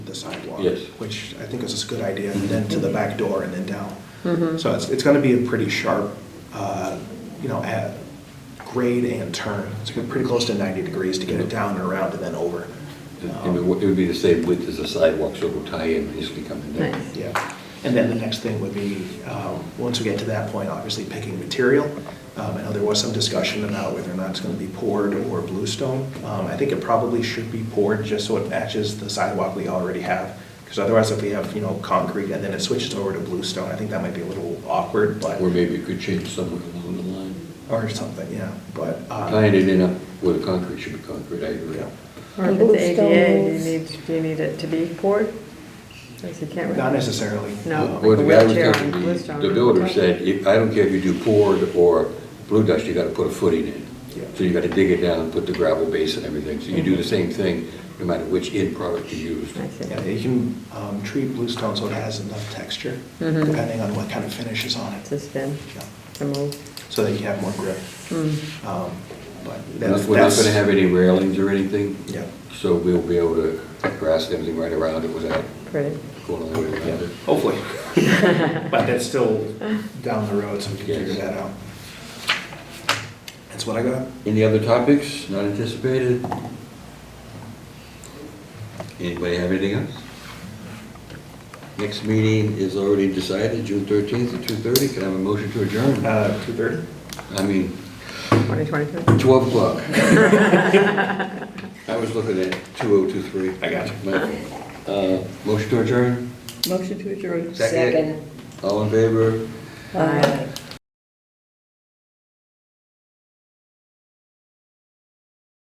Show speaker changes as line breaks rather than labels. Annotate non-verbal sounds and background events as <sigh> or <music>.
the sidewalk.
Yes.
Which I think is a good idea, and then to the back door and then down. So it's, it's gonna be a pretty sharp, uh, you know, at grade and turn. It's gonna be pretty close to ninety degrees to get it down and around and then over.
It would it would be the same width as the sidewalk, so it will tie in nicely coming down.
Nice.
Yeah, and then the next thing would be, um, once we get to that point, obviously picking material. Um, I know there was some discussion about whether or not it's going to be poured or bluestone. Um, I think it probably should be poured just so it matches the sidewalk we already have. Because otherwise, if we have, you know, concrete and then it switches over to bluestone, I think that might be a little awkward, but,
Or maybe it could change somewhere along the line.
or something, yeah, but. uh,
Tying it in up where the concrete should be concrete, I agree.
Yeah.
Or if
Blue
it's ADA, do you
stones.
need, do you need it to be poured? Because you can't. really-
Not necessarily.
No.
Uh,
Well,
Like a
the guy was
wheelchair
gonna
on
be-
Bluestone.
The builder said, "If- I don't care if you do poured or blue dust, you gotta put a footing in.
Yeah.
So you gotta dig it down, put the gravel base and everything, so you do the same thing, no matter which end product you use.
I see.
Yeah, you can um, treat bluestone so it has enough texture,
Mhm.
depending on what kind of finish is on it.
To spin,
Yeah.
to move.
so that you have more grip.
Mm.
Um, But
We're
that's.
not- We're not gonna have any railings or anything.
Yeah.
So we'll be able to grass everything right around it without
Pretty.
going all the way
Yeah,
around it.
<laughs> Hopefully. But that's still down the road, so we can figure
Yes.
that out. That's what I got.
Any other topics not anticipated? Anybody have anything else? Next meeting is already decided, June thirteenth at two thirty. Can I have a motion to adjourn?
Uh, two thirty?
I mean,
2022.
twelve o'clock. I was looking at two oh two three.
I got you.
Uh, motion to adjourn?
Motion to adjourn.
All in favor?
Aye.